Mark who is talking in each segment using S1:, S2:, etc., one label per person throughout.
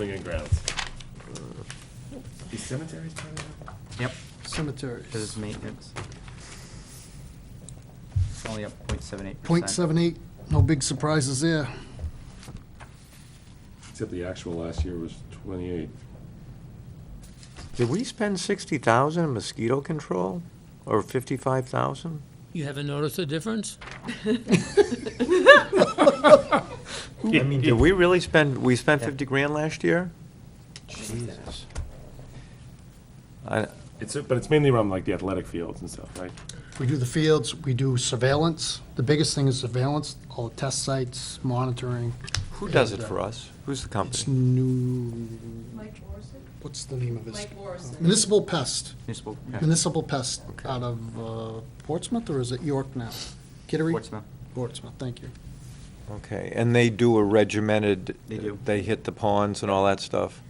S1: Building and grounds.
S2: The cemeteries part of that?
S3: Yep,
S4: Cemeteries.
S3: because it's maintenance. It's only up 0.78 percent.
S4: Point seven eight, no big surprises there.
S1: Except the actual last year was twenty-eight.
S5: Did we spend sixty thousand in mosquito control, or fifty-five thousand?
S6: You haven't noticed a difference?
S5: I mean, did we really spend, we spent
S3: Yeah.
S5: fifty grand last year? Jesus. I,
S1: It's, but it's mainly around like the athletic fields and stuff, right?
S4: We do the fields, we do surveillance. The biggest thing is surveillance, all the test sites, monitoring. uh,
S5: who does it for us? Who's the
S4: It's
S5: company?
S4: new,
S7: Mike Morrison?
S4: what's the name of this?
S7: Mike Morrison.
S4: Municipal Pest,
S3: Municipal,
S4: Municipal Pest
S5: Okay.
S4: out of uh, Portsmouth, or is it York now? Kittery?
S3: Portsmouth.
S4: Portsmouth, thank you.
S5: Okay, and they do a regimented.
S3: They do.
S5: They hit the ponds and all that stuff,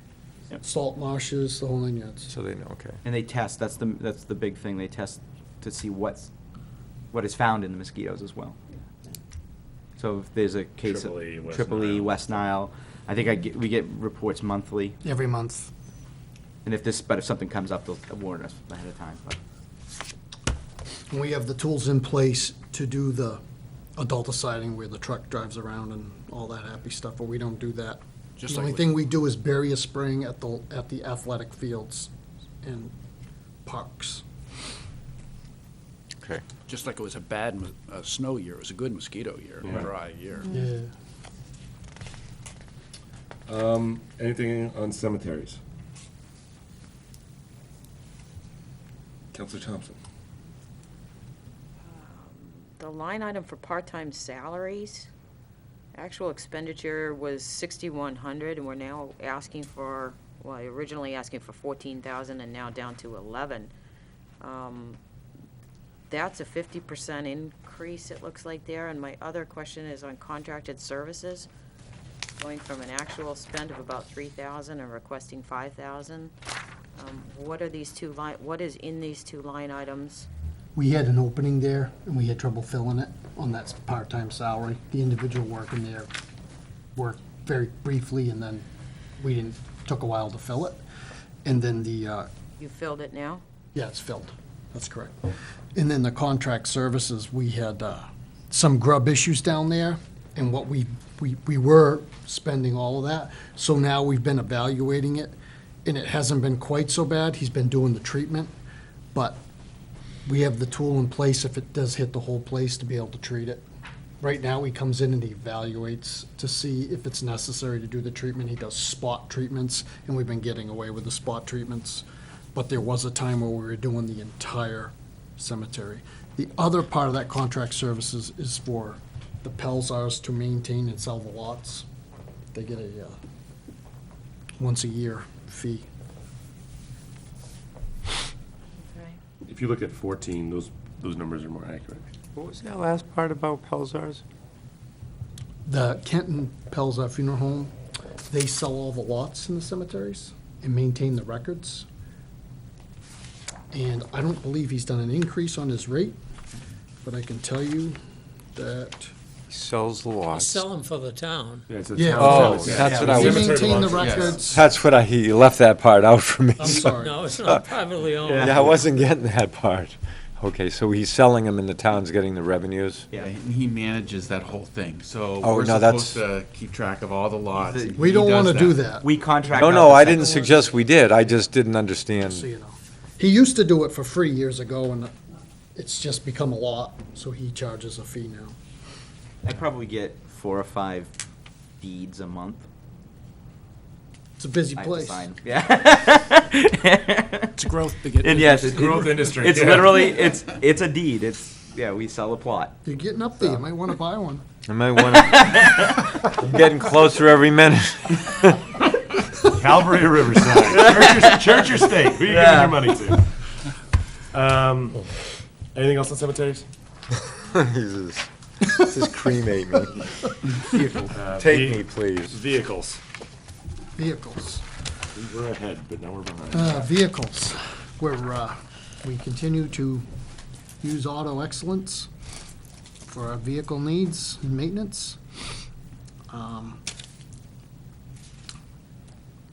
S4: Salt marshes, the whole nine yards.
S5: so they know, okay.
S3: And they test, that's the, that's the big thing, they test to see what's, what is found in the mosquitoes as well. So if there's a case of.
S1: Triple E, West
S3: Triple E,
S1: Nile.
S3: West Nile, I think I get, we get reports monthly,
S4: Every month.
S3: and if this, but if something comes up, they'll warn us ahead of time, but.
S4: And we have the tools in place to do the adult siding where the truck drives around and all that happy stuff, but we don't do that.
S2: Just
S4: The
S2: like
S4: only
S2: we-
S4: thing we do is bury a spring at the, at the athletic fields and parks.
S5: Okay.
S2: Just like it was a bad mos- uh, snow year, it was a good mosquito year,
S1: Yeah.
S2: dry year.
S4: Yeah.
S1: Anything on cemeteries? Counselor Thompson?
S8: The line item for part-time salaries, actual expenditure was sixty-one hundred, and we're now asking for, well, originally asking for fourteen thousand and now down to eleven. Um, That's a fifty percent increase, it looks like there, and my other question is on contracted services, going from an actual spend of about three thousand and requesting five thousand. Um, What are these two line, what is in these two line items?
S4: We had an opening there and we had trouble filling it on that part-time salary. The individual working there worked very briefly and then we didn't, took a while to fill it. And then the, uh,
S8: You filled it now?
S4: Yeah, it's filled. That's correct. And then the contract services, we had uh, some grub issues down there, and what we, we, we were spending all of that. So now we've been evaluating it, and it hasn't been quite so bad. He's been doing the treatment, but we have the tool in place if it does hit the whole place to be able to treat it. Right now, he comes in and he evaluates to see if it's necessary to do the treatment. He does spot treatments, and we've been getting away with the spot treatments. But there was a time where we were doing the entire cemetery. The other part of that contract services is for the Pelsars to maintain and sell the lots. They get a, uh, once-a-year fee.
S8: Okay.
S1: If you look at fourteen, those, those numbers are more accurate.
S5: What was that last part about Pelzars?
S4: The Kenton Pelza Funeral Home, they sell all the lots in the cemeteries and maintain the records. And I don't believe he's done an increase on his rate, but I can tell you that
S5: He Sells the
S6: You
S5: lots.
S6: Sell them for the town.
S1: Yeah, it's a
S4: Yeah.
S1: town
S5: Oh,
S1: cemetery.
S5: that's what I
S4: they
S5: was,
S1: Cemetery
S4: maintain the
S1: lots, yes.
S4: records.
S5: that's what I, he left that part out for me.
S4: I'm
S5: so-
S4: sorry.
S6: No, it's not privately owned.
S5: Yeah, I wasn't getting that part. Okay, so he's selling them and the town's getting the revenues?
S3: Yeah.
S9: And he manages that whole thing, so
S5: Oh,
S9: we're
S5: no, that's-
S9: supposed to keep track of all the lots. and
S4: We
S9: he
S4: don't
S9: does
S4: want to do that,
S3: We contract.
S5: No,
S3: out
S5: no,
S3: the
S5: I
S3: site-
S5: didn't suggest we did, I just didn't understand.
S4: so you know. He used to do it for free years ago, and it's just become a lot, so he charges a fee now.
S3: I probably get four or five deeds a month.
S4: It's a busy
S3: I have to
S4: place.
S3: sign. Yeah.
S2: It's growth to get.
S3: and yes,
S1: It's
S3: it-
S1: growth
S3: it-
S1: industry,
S3: It's
S1: yeah.
S3: literally it's it's a deed. It's yeah, we sell a plot.
S4: You're getting up there, you might want to buy one.
S5: I might want to, I'm getting closer every minute.
S1: Calvary or Riverside? Church or state? Who you giving your money to? Um, anything else on cemeteries?
S5: Jesus, this is cremate me. Take me, please.
S1: Uh, Vehicles.
S4: Vehicles.
S1: We were ahead, but now we're behind.
S4: Uh, Vehicles, where uh, we continue to use auto excellence for our vehicle needs and maintenance. Um,